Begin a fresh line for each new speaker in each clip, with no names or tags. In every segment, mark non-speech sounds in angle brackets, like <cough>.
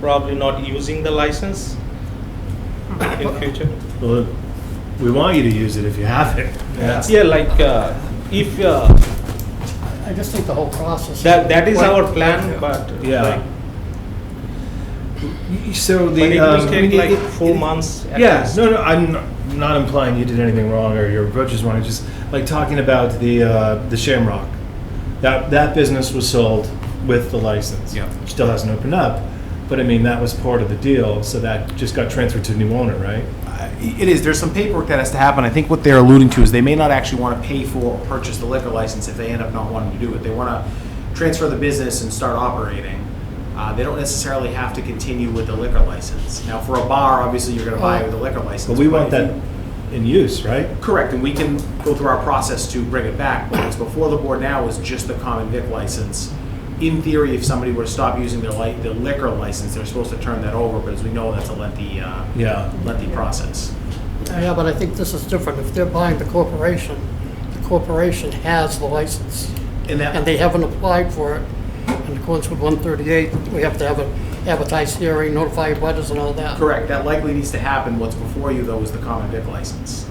probably not using the license in future.
Well, we want you to use it if you have it. That's-
Yeah, like, uh, if, uh,
I just think the whole process.
that, that is
Like-
our plan, but.
Yeah.
like-
So the.
But it
um,
will take
it-
like
it-
four
it-
months. at
Yeah,
least.
no, no, I'm not- not implying you did anything wrong or your approach is wrong. It's Just like talking about the uh, the Shamrock, that that business was sold with the license.
Yeah.
still hasn't opened up, but I mean that was part of the deal, so that just got transferred to the new owner, right?
It is, there's some paperwork that has to happen. I think what they're alluding to is they may not actually want to pay for or purchase the liquor license if they end up not wanting to do it. They want to transfer the business and start operating. Uh, They don't necessarily have to continue with the liquor license. Now, for a bar, obviously, you're going to
Oh.
buy with a liquor license.
But we want
if you-
that in use, right?
Correct, and we can go through our process to bring it back, but what's before the board now is just the common vic license. In theory, if somebody were to stop using their li, their liquor license, they're supposed to turn that over, but as we know, that's a lengthy, uh,
Yeah.
lengthy process.
Yeah, but I think this is different. If they're buying the corporation, the corporation has the license,
And
and
that,
they haven't applied for it. In accordance with 138, we have to have an advertised hearing, notify butters and all that.
correct, that likely needs to happen, what's before you though is the common vic license.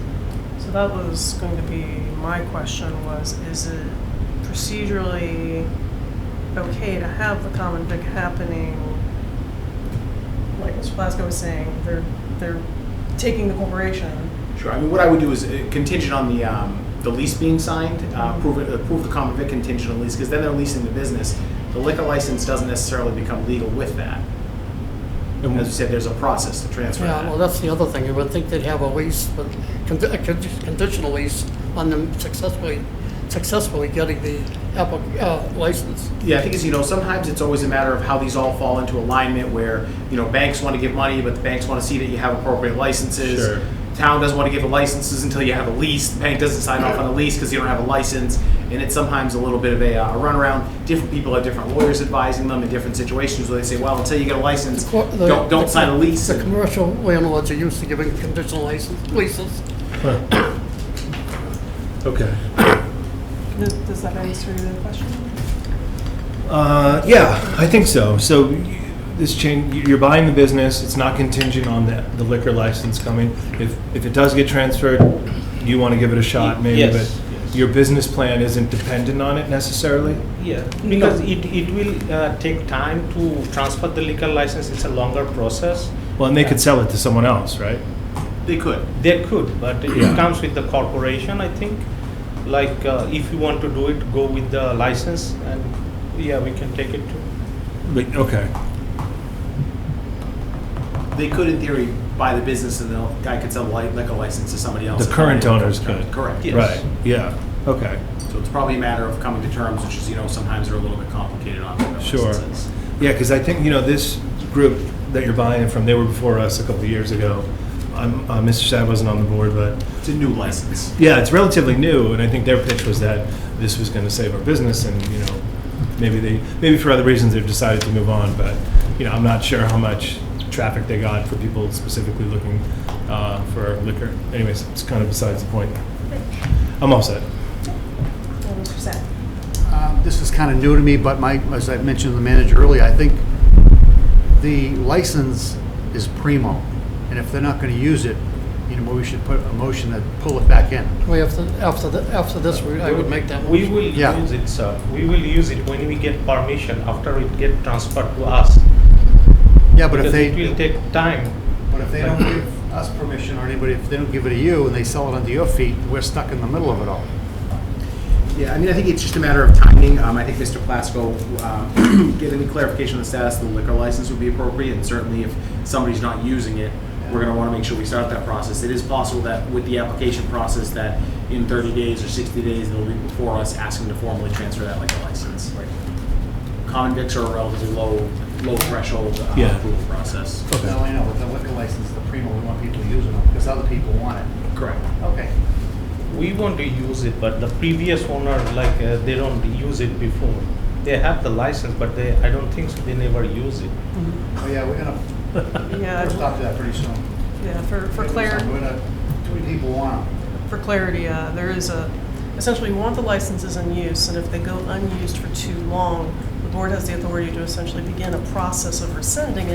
So that was going to be my question was, is it procedurally okay to have the common vic happening? Like Mr. Plasko was saying, they're, they're taking the corporation.
Sure, I mean, what I would do is uh, contingent on the, um, the lease being signed, uh, prove it, approve the common vic contingent on lease, because then they're leasing the business. The liquor license doesn't necessarily become legal with that.
And
As you said, there's a process to transfer
Yeah, well,
that.
that's the other thing. You would think they'd have a lease, but condi- a condi- conditional lease on them successfully, successfully getting the applic- uh, license.
Yeah, I think it's, you know, sometimes it's always a matter of how these all fall into alignment where, you know, banks want to give money, but the banks want to see that you have appropriate licenses.
Sure.
Town doesn't want to give the licenses until you have a lease. The bank doesn't sign off on a lease because you don't have a license. And it's sometimes a little bit of a uh, runaround. Different people have different lawyers advising them in different situations where they say, well, until you get a license,
Co- the-
don't, don't
the-
sign a lease.
The commercial landlords are used to giving conditional license, leases.
Huh. <coughs> Okay.
Does does that answer the question?
Uh, yeah, I think so. So y- this change, you're buying the business, it's not contingent on the the liquor license coming. If, if it does get transferred, you want to give it a shot maybe,
Yes,
but
yes.
your business plan isn't dependent on it necessarily?
Yeah, because it, it will uh, take time to transfer the liquor license, it's a longer process.
Well, and they could sell it to someone else, right?
They could.
They could, but
Yeah.
it comes with the corporation, I think. Like, uh, if you want to do it, go with the license and, yeah, we can take it to.
But, okay.
They could, in theory, buy the business and the guy could sell like liquor license to somebody else.
The current owners could.
Correct.
Yes.
Right, yeah, okay.
So it's probably a matter of coming to terms, which is, you know, sometimes they're a little bit complicated on their
Sure.
licenses.
Yeah, because I think, you know, this group that you're buying it from, they were before us a couple of years ago. I'm- uh, Mr. Shad wasn't on the board, but
It's a new license.
Yeah, it's relatively new, and I think their pitch was that this was going to save our business, and, you know, maybe they, maybe for other reasons, they've decided to move on, but, you know, I'm not sure how much traffic they got for people specifically looking uh, for liquor. Anyways, it's kind of besides the point. I'm all set.
Well, Mr. Sack?
Um, This is kind of new to me, but my, as I mentioned to the manager earlier, I think the license is primo, and if they're not going to use it, you know, we should put a motion to pull it back in.
We have to, after, the- after this, we- I would make that
We
motion.
will
Yeah.
use it, sir. We will use it when we get permission, after it get transferred to us.
Yeah, but
Because
if they,
it will take time.
but if they don't give us permission or anybody, if they don't give it to you and they sell it under your feet, we're stuck in the middle of it all.
Yeah, I mean, I think it's just a matter of timing. Um, I think Mr. Plasko, um, <clears throat> getting the clarification on the status of the liquor license would be appropriate, and certainly if somebody's not using it, we're gonna wanna make sure we start that process. It is possible that with the application process, that in thirty days or sixty days, they'll be before us asking to formally transfer that liquor license. Common vics are a relatively low, low threshold uh,
Yeah. Oh,
approval process.
Okay.
Now, I know, but the liquor license, the primo, we want people using it because other people want it.
Correct.
Okay.
We want to use it, but the previous owner, like, uh, they don't use it before. They have the license, but they, I don't think so, they never use it.
Oh, yeah, we're going to,
Yeah,
we'll stop that pretty soon.
yeah, for, for clarity.
We're gonna- Too many people want them.
for clarity, uh, there is a, essentially, we want the licenses in use, and if they go unused for too long, the board has the authority to essentially begin a process of rescinding it.